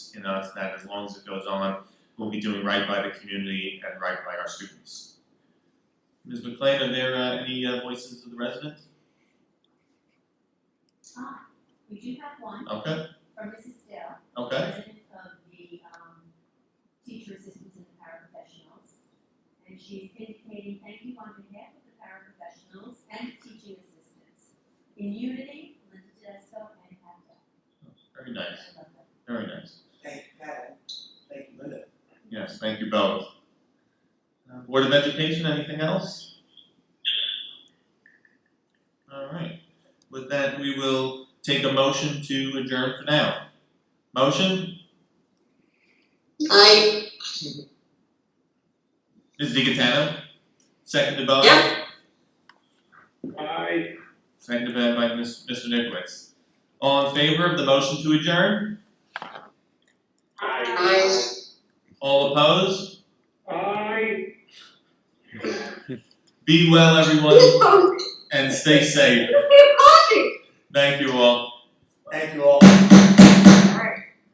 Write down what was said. confidence in us that as long as it goes on, we'll be doing right by the community and right by our students. Ms. McLean, are there uh, any uh, voices of the residents? Ah, we do have one Okay, from Mrs. Dale, okay, president of the um teacher assistants and the paraprofessionals. And she's indicating thank you on behalf of the paraprofessionals and teaching assistants. In unity, Linda Tedesco and Hannah. very nice, I love that. very nice. Thank you, Pat. Thank you, Linda. Yes, thank you both. Uh, Board of Education, anything else? All right, with that, we will take a motion to adjourn for now. Motion, I, Ms. DiGatano, seconded by? Yeah. Aye. Seconded by by Ms- Mr. Nickowitz. All in favor of the motion to adjourn? I, All opposed? Aye. Be well, everyone, and stay safe. I.